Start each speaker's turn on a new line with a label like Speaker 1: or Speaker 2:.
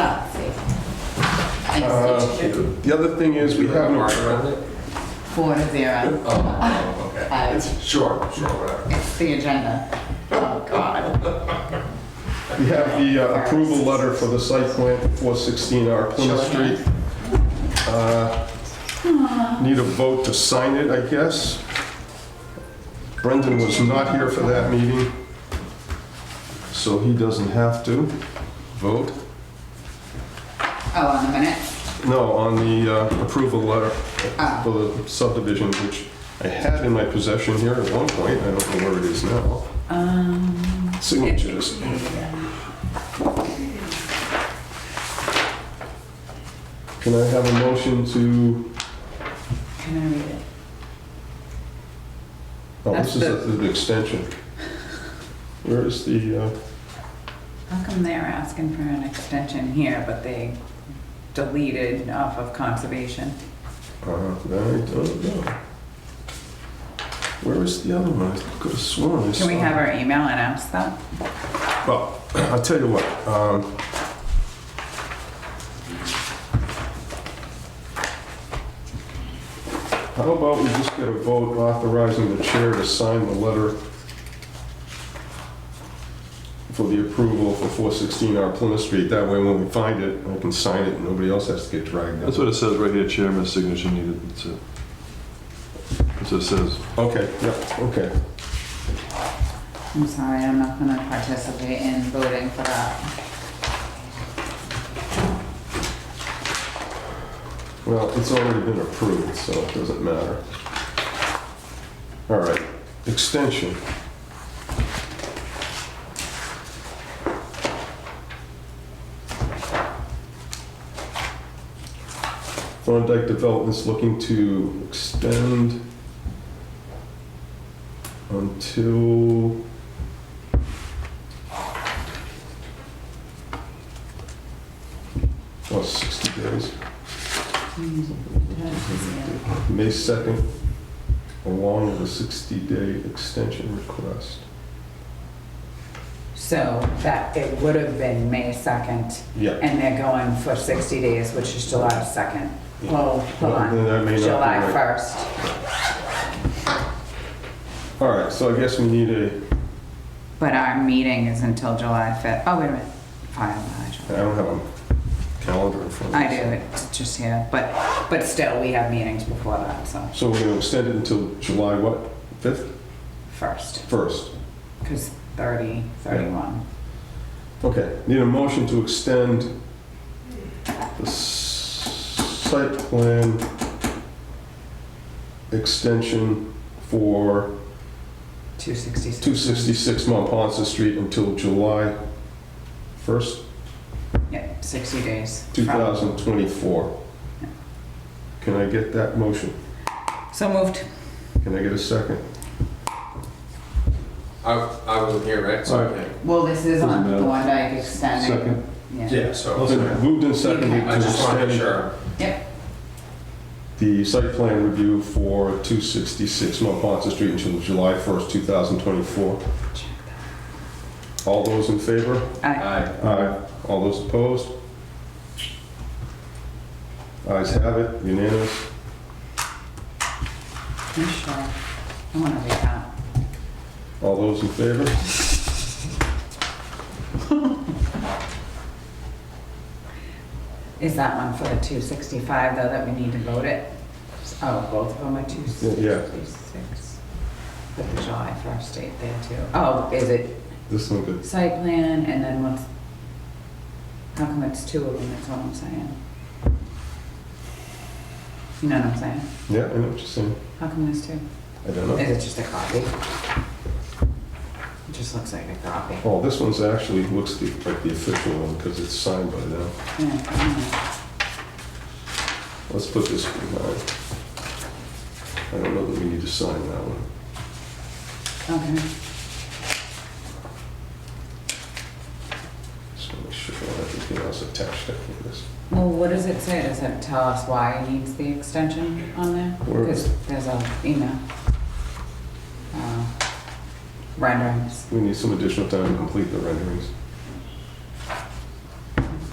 Speaker 1: Ah,
Speaker 2: Uh, The other thing is, we have no,
Speaker 3: Four to zero.
Speaker 1: Oh, okay.
Speaker 3: Uh,
Speaker 1: It's, sure, sure, whatever.
Speaker 3: It's the agenda. Oh, God.
Speaker 2: we have the uh, approval letter for the site plan for 416 R Plymouth
Speaker 3: Sure.
Speaker 2: Street. Uh, Need a vote to sign it, I guess. Brendan was not here for that meeting, so he doesn't have to vote.
Speaker 3: Oh, on the minute?
Speaker 2: No, on the uh, approval letter for the subdivision, which I had in my possession here at one point, I don't know where it is now.
Speaker 3: Um,
Speaker 2: Signatures. Can I have a motion to,
Speaker 3: can I read it?
Speaker 2: oh, this is
Speaker 3: That's
Speaker 2: the extension. Where is the, uh,
Speaker 3: How come they're asking for an extension here, but they deleted off of conservation?
Speaker 2: uh, I don't know. Where is the other one? I could have sworn I saw.
Speaker 3: Can we have our email and ask that?
Speaker 2: Well, I'll tell you what. um, How about we just get a vote authorizing the chair to sign the letter for the approval for 416 R Plymouth Street? That way, when we find it, I can sign it, and nobody else has to get dragged
Speaker 4: That's
Speaker 2: up.
Speaker 4: what it says right here, chairman's signature needed, that's it. That's what it says.
Speaker 2: Okay, yeah, okay.
Speaker 3: I'm sorry, I'm not gonna participate in voting for that.
Speaker 2: Well, it's already been approved, so it doesn't matter. All right, extension. Thorndike Development's looking to extend until... Oh, 60 days. May 2nd, along with a 60-day extension request.
Speaker 3: So that it would have been May 2nd,
Speaker 2: Yeah.
Speaker 3: and they're going for 60 days, which is July 2nd.
Speaker 2: Yeah.
Speaker 3: Well, hold
Speaker 2: Well,
Speaker 3: on,
Speaker 2: then that may not be
Speaker 3: July
Speaker 2: right.
Speaker 3: 1st,
Speaker 2: All right, so I guess we need a,
Speaker 3: but our meeting is until July 5th. Oh, wait a minute, file
Speaker 2: I
Speaker 3: module.
Speaker 2: don't have a calendar in front of me.
Speaker 3: I do, it's just here, but, but still, we have meetings before that, so
Speaker 2: So we're going to extend it until July what, 5th?
Speaker 3: first,
Speaker 2: 1st.
Speaker 3: because 30, 31.
Speaker 2: Okay, need a motion to extend the s- site plan extension for
Speaker 3: 266.
Speaker 2: 266 Mont Ponce Street until July 1st?
Speaker 3: Yeah, 60 days. from-
Speaker 2: 2024. Can I get that motion?
Speaker 3: So moved.
Speaker 2: Can I get a second?
Speaker 1: I, I wasn't here, right? So,
Speaker 2: Alright.
Speaker 1: okay.
Speaker 3: Well, this is on
Speaker 4: Doesn't matter.
Speaker 3: Thorndike extending. Yeah.
Speaker 1: Yeah, so,
Speaker 2: Been Moved and seconded
Speaker 1: I
Speaker 2: to
Speaker 1: just wanted to make
Speaker 2: extend
Speaker 1: sure.
Speaker 3: Yep,
Speaker 2: the site plan review for 266 Mont Ponce Street until July 1st, 2024. All those in favor?
Speaker 3: aye.
Speaker 1: Aye.
Speaker 2: Aye. All those opposed? Ayes have it, unanimous.
Speaker 3: You sure? I want to read that.
Speaker 2: All those in favor?
Speaker 3: Is that one for the 265, though, that we need to vote it? Oh, both of them are 266. Put the July 1st date there, too. Oh, is it
Speaker 2: This one good.
Speaker 3: site plan and then what's, how come it's two of them, that's all I'm saying? You know what I'm saying?
Speaker 2: Yeah, I know what you're saying.
Speaker 3: How come there's two?
Speaker 2: I don't know.
Speaker 3: Is it just a copy? It just looks like a copy.
Speaker 2: Oh, this one's actually, looks the- like the official one because it's signed by them.
Speaker 3: Yeah, I
Speaker 2: Let's put this behind. I don't know that we need to sign that one.
Speaker 3: don't know. Okay.
Speaker 2: Just want to make sure I don't have anything else attached to this.
Speaker 3: Well, what does it say? Does it tell us why it needs the extension on there?
Speaker 2: Where-
Speaker 3: Because there's a email. Uh, Renderings.
Speaker 2: We need some additional time to complete the renderings.